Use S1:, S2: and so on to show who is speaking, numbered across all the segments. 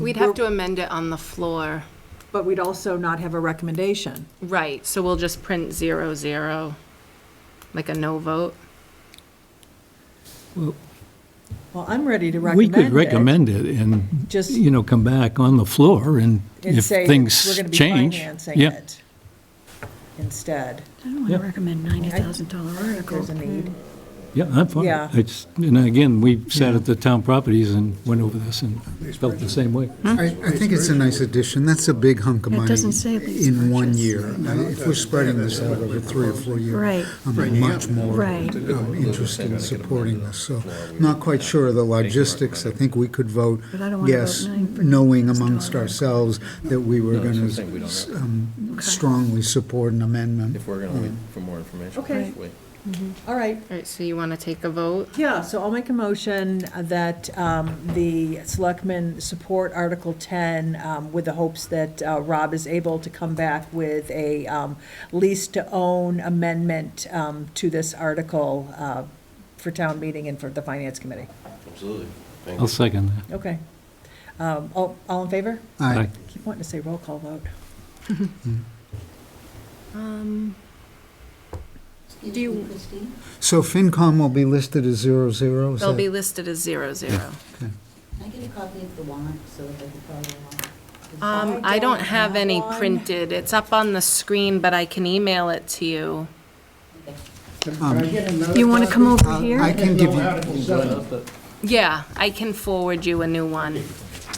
S1: We'd have to amend it on the floor.
S2: Um, But we'd also not have a recommendation.
S1: Right, so we'll just print zero, zero, like a no vote.
S2: Well, I'm ready to
S3: We
S2: recommend
S3: could
S2: it.
S3: recommend it and,
S2: Just-
S3: you know, come back on the floor and
S2: And
S3: if
S2: say,
S3: things
S2: we're going to be
S3: change.
S2: financing
S3: yeah.
S2: it instead.
S4: I don't want to recommend $90,000
S2: I think There's
S4: article.
S2: a need.
S3: Yeah, I'm fine.
S2: Yeah.
S3: It's, and again, we sat at the town properties and went over this and felt the same way.
S5: I, I think it's a nice addition. That's a big hunk of
S4: It
S5: money.
S4: doesn't say lease
S5: In one
S4: purchase.
S5: year. I- If we're spreading this out over three or four years.
S4: Right.
S5: I'm much more
S4: Right.
S5: um, interested in supporting this, so not quite sure of the logistics. I think we could vote
S4: But I don't wanna
S5: yes,
S4: vote nine for
S5: knowing
S4: this
S5: amongst
S4: dollar.
S5: ourselves that we were going to strongly support an amendment.
S6: If we're gonna wait for more information.
S2: Okay.
S6: just wait.
S2: All right,
S1: All right, so you want to take a vote?
S2: yeah, so I'll make a motion that um, the selectmen support Article 10 um, with the hopes that uh, Rob is able to come back with a um, lease-to-own amendment um, to this article uh, for town meeting and for the finance committee.
S6: Absolutely. Thank
S3: I'll
S6: you.
S3: second that.
S2: Okay. Um, All all in favor?
S5: Aye.
S2: Keep wanting to say roll call vote.
S1: Um, Do you-
S7: Christine?
S5: So FinCom will be listed as zero, zero? is
S1: They'll
S5: that-
S1: be listed as zero, zero.
S7: Can I get a copy of the warrant so that I can follow along?
S1: Um, I don't have any
S2: one.
S1: printed. It's up on the screen, but I can email it to you.
S4: You want to come over
S5: I
S4: here?
S5: can give you,
S1: Yeah, I can forward you a new one.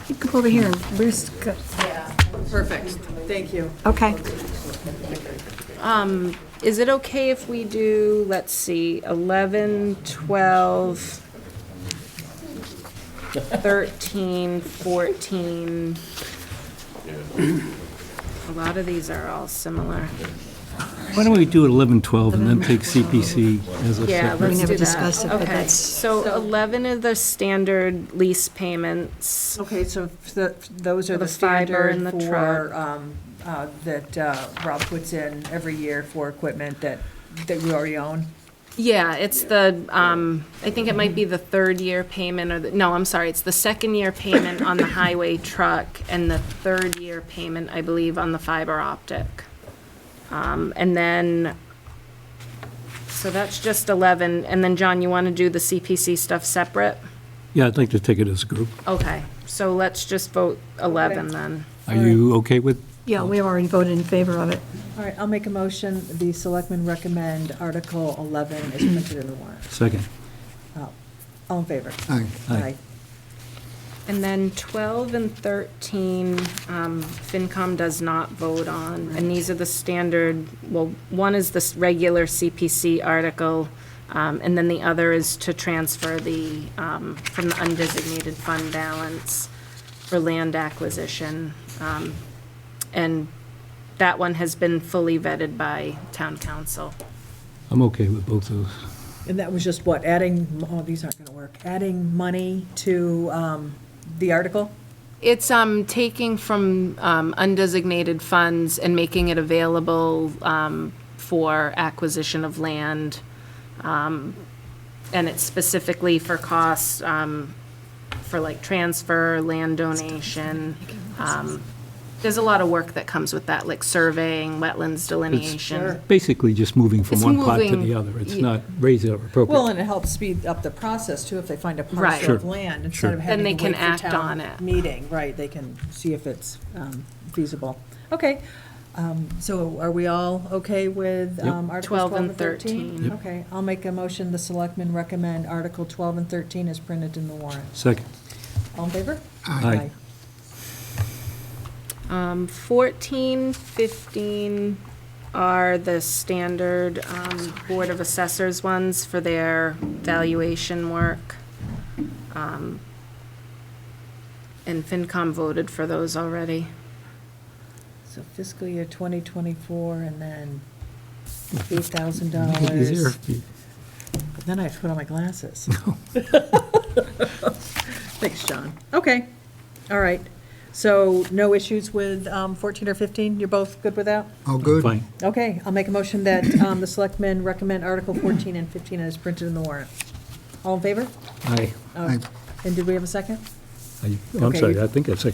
S4: You Come over here. Where's, the-
S1: Perfect.
S2: Thank you.
S4: okay.
S1: Um, is it okay if we do, let's see, 11, 12, 13, 14? A lot of these are all similar.
S3: Why don't we do 11, 12 and then take CPC as a
S1: Yeah,
S3: separate?
S1: let's
S4: never
S1: do
S4: discussed it,
S1: that.
S4: but
S1: Okay,
S4: that's-
S1: so 11 are the standard lease payments.
S2: Okay, so f- the- those are
S1: For the
S2: the
S1: fiber and
S2: standard
S1: the
S2: for, um, uh, that uh, Rob puts in every year for equipment that, that we already own?
S1: Yeah, it's the, um, I think it might be the third year payment or the, no, I'm sorry, it's the second year payment on the highway truck and the third year payment, I believe, on the fiber optic. Um, and then, so that's just eleven, and then John, you wanna do the CPC stuff separate?
S3: Yeah, I'd like to take it as a group.
S1: Okay, so let's just vote eleven
S2: Okay.
S1: then.
S3: Are you okay with?
S4: Yeah, we already voted in favor of it.
S2: All right, I'll make a motion, the selectmen recommend Article 11 is printed in the warrant.
S3: Second.
S2: Uh, All in favor?
S5: aye.
S3: Aye.
S1: And then 12 and 13, um, FinCom does not vote on, and these are the standard, well, one is this regular CPC article, um, and then the other is to transfer the, um, from the undesignated fund balance for land acquisition. Um, And that one has been fully vetted by town council.
S3: I'm okay with both those.
S2: And that was just what, adding, oh, these aren't going to work, adding money to um, the article?
S1: It's um, taking from um, undesignated funds and making it available um, for acquisition of land. um, And it's specifically for costs, um, for like transfer, land donation. um, There's a lot of work that comes with that, like surveying, wetlands delineation.
S3: Basically just moving from
S1: It's
S3: one pot to
S1: moving-
S3: the other. It's
S1: Ye-
S3: not raise it or appropriate.
S2: Well, and it helps speed up the process too, if they find a
S1: Right.
S2: parcel
S1: Sure.
S2: of land, instead of
S3: Sure.
S2: having
S1: Then they
S2: to wait
S1: can
S2: for
S1: act on
S2: town
S1: it.
S2: meeting, right, they can see if it's um, feasible. Okay, um, so are we all okay with
S3: Yep.
S2: um, Articles 12 and 13?
S3: Yep.
S2: Okay, I'll make a motion, the selectmen recommend Article 12 and 13 is printed in the warrant.
S3: Second.
S2: All in favor?
S3: Aye.
S1: Um, 14, 15 are the standard um, Board of Assessors ones for their valuation work. Um, And FinCom voted for those already.
S2: So fiscal year 2024, and then
S3: Is there-
S2: $8,000. Then I have to put on my glasses. Thanks, John. Okay, all right. So no issues with um, 14 or 15? You're both good with that?
S5: All good?
S3: Fine.
S2: Okay, I'll make a motion that um, the selectmen recommend Article 14 and 15 as printed in the warrant. All in favor?
S3: Aye.
S2: Oh,
S5: Aye.
S2: And did we have a second?
S3: I- I'm
S2: Okay,
S3: sorry,
S2: you-
S3: I think I seconded